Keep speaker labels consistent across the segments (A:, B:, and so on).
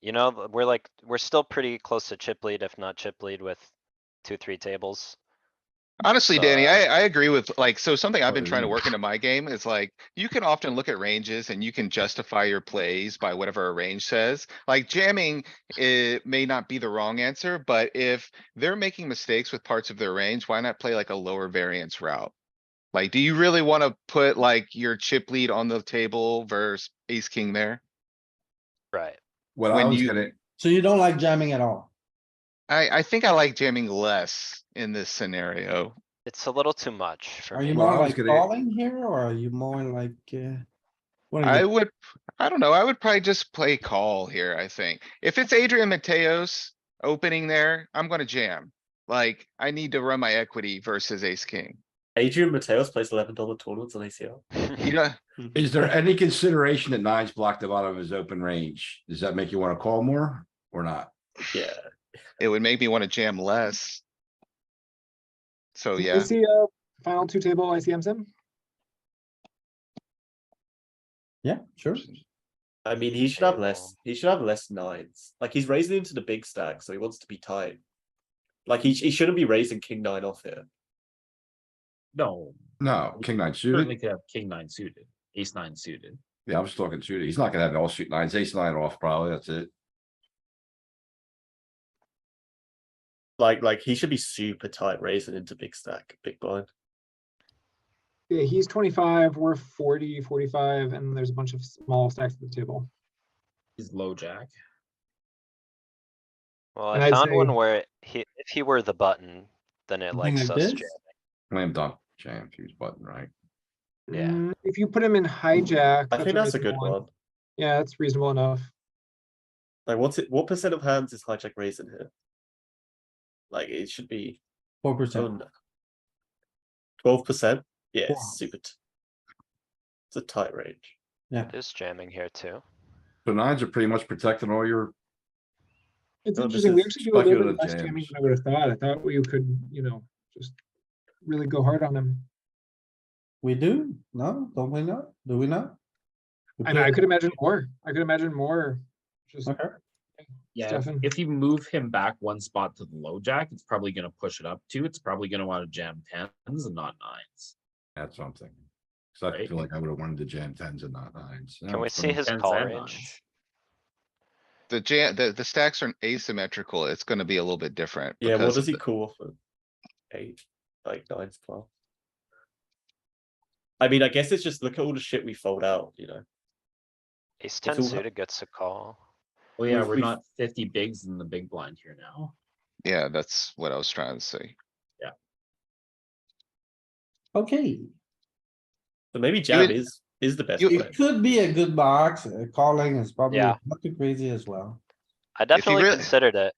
A: You know, but we're like, we're still pretty close to chip lead, if not chip lead with two, three tables.
B: Honestly, Danny,
A: So-
B: I, I agree with like, so something I've been trying to
C: Oh,
B: work into my game is like, you can often look at ranges and you can justify your plays by whatever a range says. Like jamming, it may not be the wrong answer, but if they're making mistakes with parts of their range, why not play like a lower variance route? Like, do you really wanna put like your chip lead on the table versus ace king there?
A: Right.
C: What I
B: When
C: was
B: you-
C: gonna,
D: So you don't like jamming at all?
B: I, I think I like jamming less in this scenario.
A: It's a little too much for
D: Are you
A: me.
C: Well, I
D: more
C: was
D: like
C: gonna-
D: calling here or are you more like, uh? what are
B: I
D: you-
B: would, I don't know, I would probably just play call here, I think. If it's Adrian Mateos opening there, I'm gonna jam. Like, I need to run my equity versus ace king.
E: Adrian Mateos plays eleven dollar tournaments on ACR.
B: You know,
C: is there any consideration that nines blocked the bottom of his open range? Does that make you wanna call more or not?
E: Yeah,
B: it would make me wanna jam less. So,
F: Is
B: yeah,
F: Is he uh final two table ICM sim?
D: Yeah, sure.
E: I mean he should have less. He should have less nines. Like he's raising into the big stack, so he wants to be tight. Like he he shouldn't be raising king nine off here.
G: No,
C: No, king nine
G: certainly
C: suited.
G: could have king nine suited, ace nine suited.
C: Yeah, I was talking suited. He's not gonna have all suit nines, ace nine off probably, that's it.
E: Like like he should be super tight raising into big stack, big blind.
F: Yeah, he's twenty-five, we're 40, 45, and there's a bunch of small stacks at the table.
G: He's low jack.
A: Well,
F: And
A: I
F: I'd
A: found
F: say-
A: one where he, if he were the button, then it
D: Something
A: likes
D: like
A: us
D: this?
A: jamming.
C: Slam dunk, jam, fuse button, right?
A: Yeah.
F: Mm, If you put him in hijack.
E: I think that's a good
F: reasonable
E: one.
F: Yeah, that's reasonable enough.
E: Like what's it? What percent of hands is hijack raising here? Like it should be
D: Four percent.
E: twelve percent. Yeah,
D: Wow.
E: it's super. T- it's a tight range.
A: There's jamming here too.
C: So nines are pretty much protecting all your,
F: It's
E: No, this
F: interesting, we
E: is
F: actually do a little
C: speculative
F: bit less jamming
C: jams.
F: than I would have thought. I thought we could, you know, just really go hard on him.
D: We do? No, don't we not? Do we not? We
F: I mean, I
D: play-
F: could imagine more. I could imagine more. Just,
D: Okay.
G: Yeah, if-
F: Stefan.
G: if you move him back one spot to the low jack, it's probably gonna push it up too. It's probably gonna wanna jam tens and not nines.
C: that's something. Cause I
G: Right.
C: feel like I would have wanted to jam tens and not nines.
A: Can we see his
G: Tens
A: call
G: and
A: range?
G: nines.
B: the jam, the, the stacks are asymmetrical. It's gonna be a little bit different.
E: Yeah, what
B: because
E: does he
B: the-
E: call off of? Eight, like nine, twelve. I mean, I guess it's just look at all the shit we fold out, you know.
A: Ace ten
E: all-
A: suited gets a call.
G: Well, yeah,
E: We've-
G: we're
E: we've-
G: not fifty bigs in the big blind here now.
B: Yeah, that's what I was trying to say.
D: Okay,
E: So maybe jam
B: would-
E: is is the best
B: you-
E: way.
D: it could be a good box. uh, Calling is probably
A: Yeah.
D: not too crazy as well.
A: I
B: you
A: definitely
B: really-
A: considered it.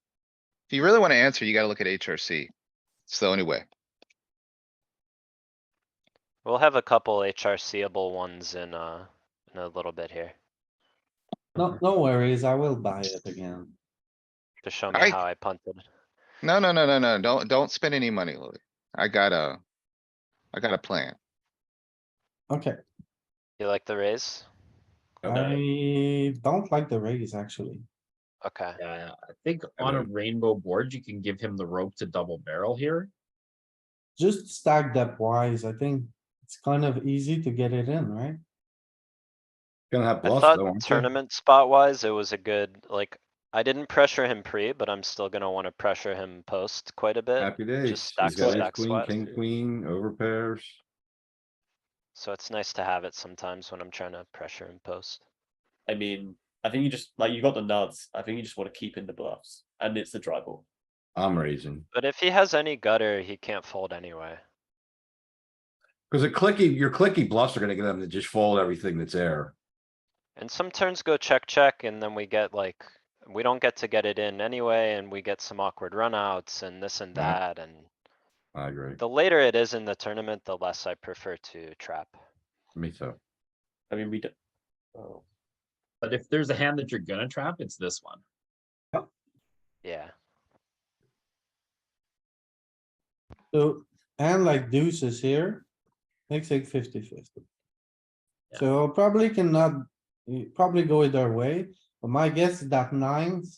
B: If you really wanna answer, you gotta look at HRC. It's the only way.
A: We'll have a couple HRCable ones in, uh, in a little bit here
D: No, no worries, I will buy it again.
A: to show me
B: I-
A: how I punted.
B: No, no, no, no, no, don't, don't spend any money, Louis. I got a, I got a plan.
D: Okay,
A: You like the raise?
D: I don't like the raise actually.
A: Okay.
G: Yeah, I think on a rainbow board, you can give him the rope to double barrel here.
D: Just stack depth wise, I think it's kind of easy to get it in, right?
C: Gonna have
A: I
C: bluffs
A: thought
C: though, aren't you?
A: tournament spot wise, it was a good, like, I didn't pressure him pre, but I'm still gonna wanna pressure him post quite a bit.
C: Happy days.
A: stack
C: He's got ace
A: stack
C: queen,
A: squats.
C: king, queen, over pairs.
A: So it's nice to have it sometimes when I'm trying to pressure him post.
E: I mean, I think you just like you got the nuts. I think you just want to keep in the bluffs, and it's a dry ball.
C: I'm raising.
A: But if he has any gutter, he can't fold anyway.
C: Cause a clicky, your clicky bluffs are gonna get them to just fold everything that's there.
A: And some turns go check, check, and then we get like, we don't get to get it in anyway, and we get some awkward runouts and this and
C: Right.
A: that, and
C: I agree.
A: the later it is in the tournament, the less I prefer to trap.
C: Me too.
E: I mean, we don't. Oh.
G: But if there's a hand that you're gonna trap, it's this one.
A: Yeah,
D: So, and like deuces here, makes it fifty fifty.
G: Yeah.
D: So probably cannot, you probably go either way, but But my guess is that nines